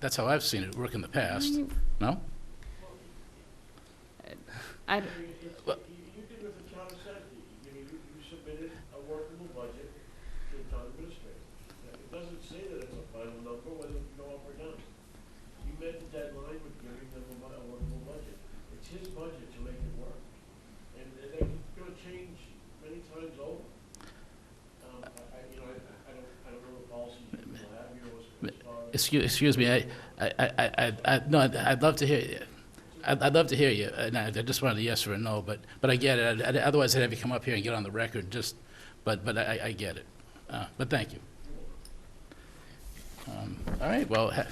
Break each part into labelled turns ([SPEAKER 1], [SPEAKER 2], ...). [SPEAKER 1] That's how I've seen it work in the past.
[SPEAKER 2] Mm, Mm-hmm.
[SPEAKER 1] No?
[SPEAKER 2] I,
[SPEAKER 3] You did with the town of Sandy, you know, you, you submitted a workable budget to the town administrator. Now, It doesn't say that it's a final number, whether you go up or down. You met the deadline with giving them a, bu- a workable budget. It's his budget to make it work. And, and they're gonna change many times over. Um, I, I, you know, I, I don't, I don't know the policies you people have, you know, as- as far as.
[SPEAKER 1] Excuse, excuse me, I, I, I, I- I, no, I'd- I'd love to hear you. I'd, I'd love to hear you, and I I just wanted a yes or a no, but, but I get it. I'd- I'd- Otherwise, I'd have you come up here and get on the record, just, but, but I, I get it. Uh, But thank you. Um, All right, well, ha-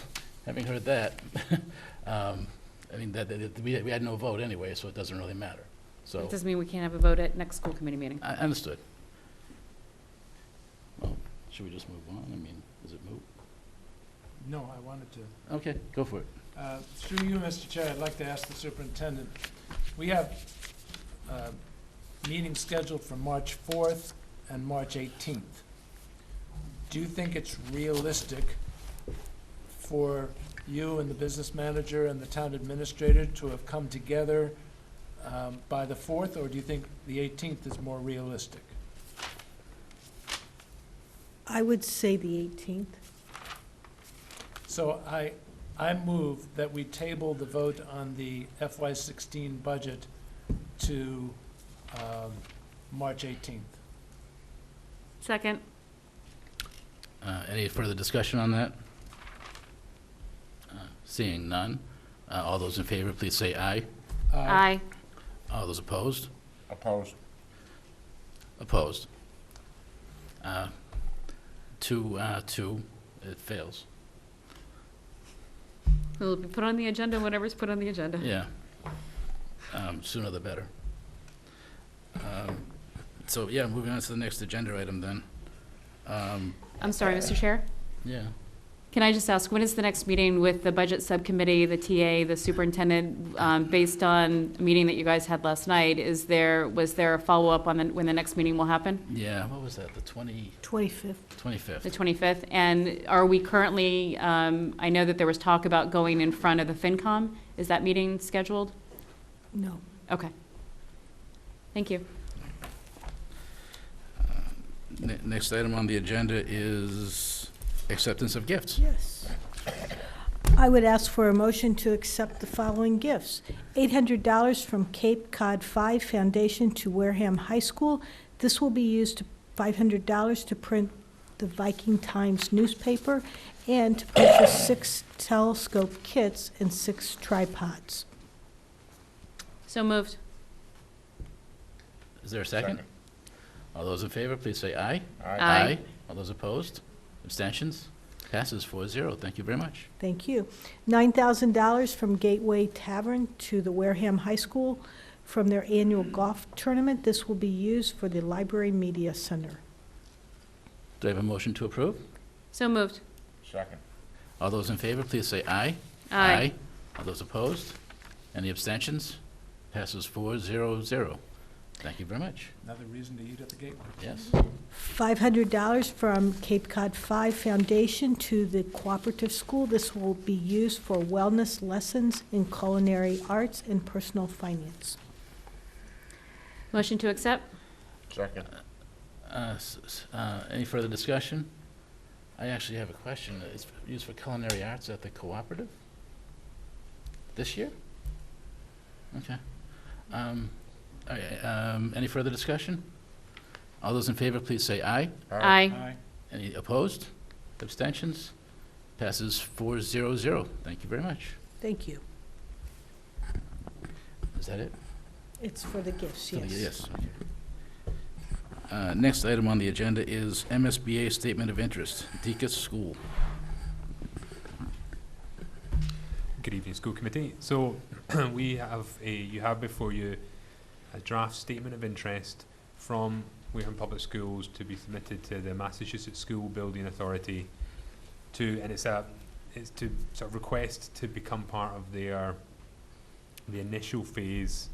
[SPEAKER 1] having heard that, um, I mean, that, that- we, we had no vote anyway, so it doesn't really matter. So,
[SPEAKER 2] it doesn't mean we can't have a vote at next school committee meeting.
[SPEAKER 1] I understood. Well, should we just move on? I mean, is it moot?
[SPEAKER 4] No, I wanted to.
[SPEAKER 1] Okay, go for it.
[SPEAKER 4] Uh, Through you, Mr. Chair, I'd like to ask the superintendent, we have uh, meetings scheduled for March 4th and March 18th. Do you think it's realistic for you and the business manager and the town administrator to have come together um, by the 4th, or do you think the 18th is more realistic?
[SPEAKER 5] I would say the 18th.
[SPEAKER 4] So I, I move that we table the vote on the FY sixteen budget to, um, March eighteenth.
[SPEAKER 2] Second.
[SPEAKER 1] Uh, Any further discussion on that? Uh, Seeing none, uh, all those in favor, please say aye.
[SPEAKER 2] Aye.
[SPEAKER 1] All those opposed?
[SPEAKER 6] Opposed.
[SPEAKER 1] Opposed. Uh, Two, uh, two, it fails.
[SPEAKER 2] It'll be put on the agenda, whatever's put on the agenda.
[SPEAKER 1] Yeah. Um, Sooner the better. Um, So, yeah, moving on to the next agenda item then. Um,
[SPEAKER 2] I'm sorry, Mr. Chair.
[SPEAKER 1] Yeah,
[SPEAKER 2] Can I just ask, when is the next meeting with the budget subcommittee, the TA, the superintendent? um, Based on a meeting that you guys had last night, is there, was there a follow-up on the- when the next meeting will happen?
[SPEAKER 1] yeah, what was that, the 20,
[SPEAKER 5] 25th.
[SPEAKER 1] 25th?
[SPEAKER 2] The 25th? And are we currently, um, I know that there was talk about going in front of the FinCom. Is that meeting scheduled?
[SPEAKER 5] No.
[SPEAKER 2] Okay. Thank you.
[SPEAKER 1] Ne- Next item on the agenda is acceptance of gifts.
[SPEAKER 5] Yes. I would ask for a motion to accept the following gifts. $800 from Cape Cod Five Foundation to Wareham High School. This will be used, to $500 to print the Viking Times newspaper and to purchase six telescope kits and six tripods.
[SPEAKER 2] So moved.
[SPEAKER 1] Is there a second? All those in favor, please say aye.
[SPEAKER 6] Aye.
[SPEAKER 2] Aye.
[SPEAKER 1] All those opposed? Abstentions? Passes 4-0. Thank you very much.
[SPEAKER 5] Thank you. $9,000 from Gateway Tavern to the Wareham High School from their annual golf tournament. This will be used for the Library Media Center.
[SPEAKER 1] Do I have a motion to approve?
[SPEAKER 2] So moved.
[SPEAKER 6] Second.
[SPEAKER 1] All those in favor, please say aye. All those opposed? Any abstentions? Passes 4-0-0. Thank you very much.
[SPEAKER 4] Another reason to eat at the Gateway.
[SPEAKER 1] Yes.
[SPEAKER 5] $500 from Cape Cod Five Foundation to the Cooperative School. This will be used for wellness lessons in culinary arts and personal finance.
[SPEAKER 2] Motion to accept?
[SPEAKER 6] Second.
[SPEAKER 1] Uh, s- s- uh, Any further discussion? I actually have a question. It's used for culinary arts at the cooperative? This year? Okay. Um, all right, um, Any further discussion? All those in favor, please say aye.
[SPEAKER 4] Aye.
[SPEAKER 1] Any opposed? Abstentions? Passes four zero zero. Thank you very much.
[SPEAKER 5] Thank you.
[SPEAKER 1] Is that it?
[SPEAKER 5] It's for the gifts,
[SPEAKER 1] For the-
[SPEAKER 5] yes.
[SPEAKER 1] okay. Uh, Next item on the agenda is MSBA Statement of Interest, Deacon's School.
[SPEAKER 7] Good evening, school committee. So we have a, you have before you a draft statement of interest from Wareham Public Schools to be submitted to the Massachusetts School Building Authority to, and it's a, it's to sort of request to become part of their, the initial phase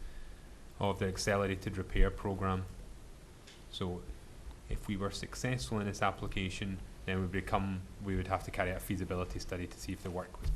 [SPEAKER 7] of the accelerated repair program. So if we were successful in this application, then we become, we would have to carry out a feasibility study to see if the work was